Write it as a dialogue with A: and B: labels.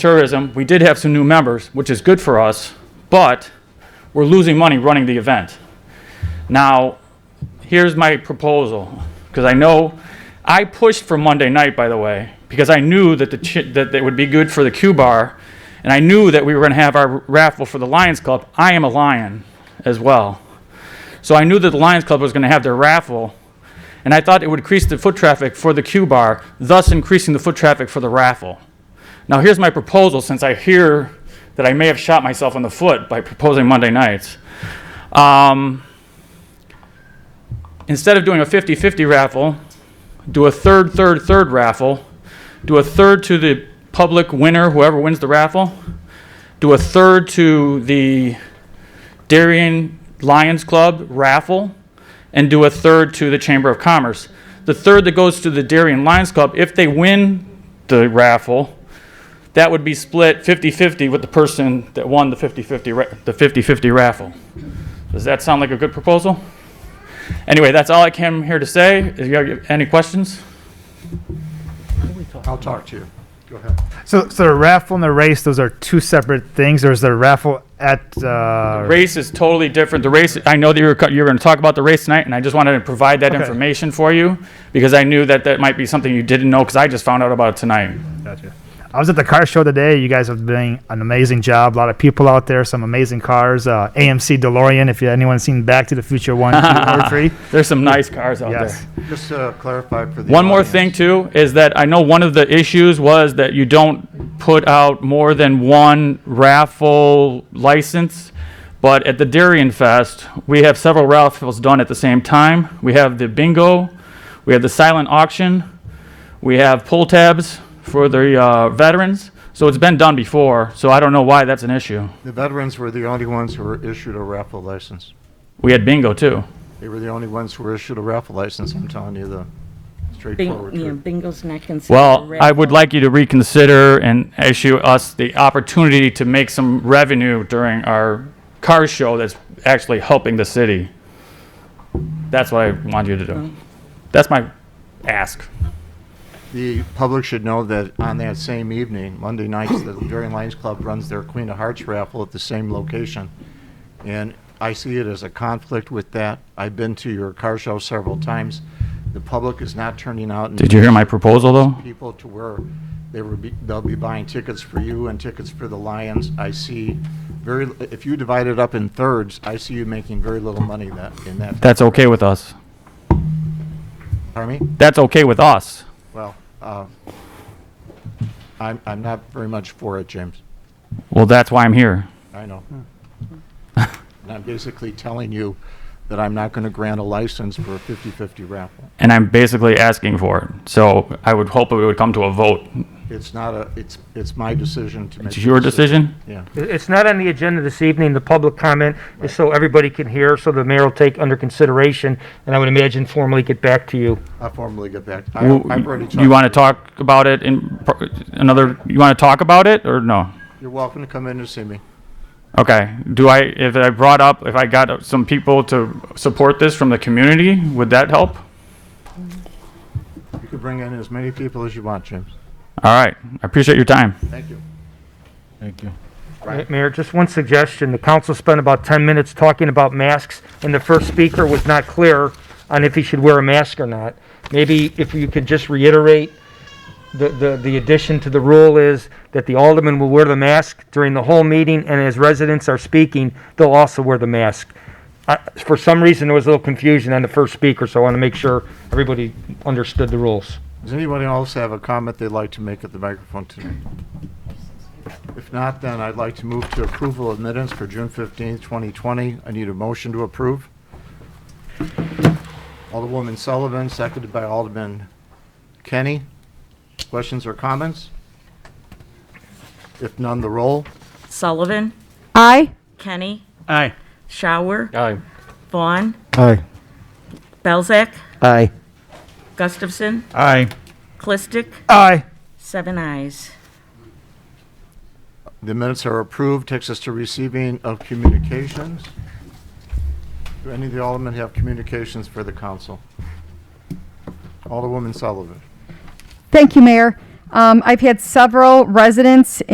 A: tourism, we did have some new members, which is good for us, but we're losing money running the event. Now, here's my proposal, because I know, I pushed for Monday night, by the way, because I knew that the, chi- that it would be good for the Q Bar, and I knew that we were going to have our raffle for the Lions Club. I am a Lion as well. So I knew that the Lions Club was going to have their raffle, and I thought it would increase the foot traffic for the Q Bar, thus increasing the foot traffic for the raffle. Now, here's my proposal, since I hear that I may have shot myself in the foot by proposing Monday nights. Um, instead of doing a 50 50 raffle, do a third, third, third raffle, do a third to the public winner, whoever wins the raffle, do a third to the Darien Lions Club raffle, and do a third to the Chamber of Commerce. The third that goes to the Darien Lions Club, if they win the raffle, that would be split 50-50 with the person that won the 50-50, ra- the 50-50 raffle. Does that sound like a good proposal? Anyway, that's all I came here to say. If you have any questions?
B: I'll talk to you. Go ahead.
C: So, so the raffle and the race, those are two separate things, or is the raffle at, uh,
A: Race is totally different. The race, I know that you were, co- you were going to talk about the race tonight, and I just wanted to provide that
C: Okay.
A: information for you because I knew that that might be something you didn't know because I just found out about it tonight.
C: Gotcha. I was at the car show today. You guys have been an amazing job. A lot of people out there, some amazing cars. Uh, AMC DeLorean, if you, anyone's seen Back to the Future 1, 2, or 3.
A: There's some nice cars out there.
C: Yes.
B: Just to clarify for the.
A: One more
B: audience,
A: thing too, is that I know one of the issues was that you don't put out more than one raffle license. But at the Darien Fest, we have several raffles done at the same time. We have the bingo, we have the silent auction, we have pull tabs for the uh, veterans. So it's been done before, so I don't know why that's an issue.
B: The veterans were the only ones who were issued a raffle license.
A: We had bingo too.
B: They were the only ones who were issued a raffle license, I'm telling you the straightforward
D: Bing, yeah,
B: truth.
D: bingo's not considered. a
A: Well,
D: red
A: I would
D: ball.
A: like you to reconsider and issue us the opportunity to make some revenue during our car show that's actually helping the city. That's what I want you to do. That's my ask.
B: The public should know that on that same evening, Monday nights, the Darien Lions Club runs their Queen of Hearts raffle at the same location. And I see it as a conflict with that. I've been to your car show several times. The public is not turning out. in
A: Did you hear my proposal, though?
B: people to where they were, be- they'll be buying tickets for you and tickets for the Lions. I see very, if you divide it up in thirds, I see you making very little money that, in that.
A: That's okay with us.
B: Pardon me?
A: That's okay with us.
B: Well, uh, I'm, I'm not very much for it, James.
A: Well, that's why I'm here.
B: I know. And I'm basically telling you that I'm not going to grant a license for a 50-50 raffle.
A: And I'm basically asking for it. So I would hope it would come to a vote.
B: It's not a, it's, it's my decision to make.
A: It's
B: the
A: your decision?
B: Yeah.
E: It- It's not on the agenda this evening. The public comment is so everybody can hear, so the mayor will take under consideration, and I would imagine formally get back to you.
B: I'll formally get back. I-
A: Well,
B: I've already talked.
A: You want to talk about it in pro- another, you want to talk about it or no?
B: You're welcome to come in and see me.
A: Okay. Do I, if I brought up, if I got some people to support this from the community, would that help?
B: You can bring in as many people as you want, James.
A: All right. I appreciate your time.
B: Thank you.
F: Thank you.
B: Right.
E: Mayor, just one suggestion. The council spent about 10 minutes talking about masks, and the first speaker was not clear on if he should wear a mask or not. Maybe if you could just reiterate, the, the the addition to the rule is that the alderman will wear the mask during the whole meeting, and as residents are speaking, they'll also wear the mask. I- For some reason, there was a little confusion on the first speaker, so I want to make sure everybody understood the rules.
B: Does anybody else have a comment they'd like to make at the microphone tonight? If not, then I'd like to move to approval of minutes for June 15th, 2020. I need a motion to approve. Alderwoman Sullivan, seconded by Alderman Kenny. Questions or comments? If none, the roll.
D: Sullivan,
G: Aye.
D: Kenny,
F: Aye.
D: Shower,
F: Aye.
D: Vaughn,
F: Aye.
D: Belzak,
F: Aye.
D: Gustafson,
F: Aye.
D: Clistic,
C: Aye.
D: seven eyes.
B: The minutes are approved. Takes us to receiving of communications. Do any of the aldermen have communications for the council? Alderwoman Sullivan.
G: Thank you, Mayor. Um, I've had several residents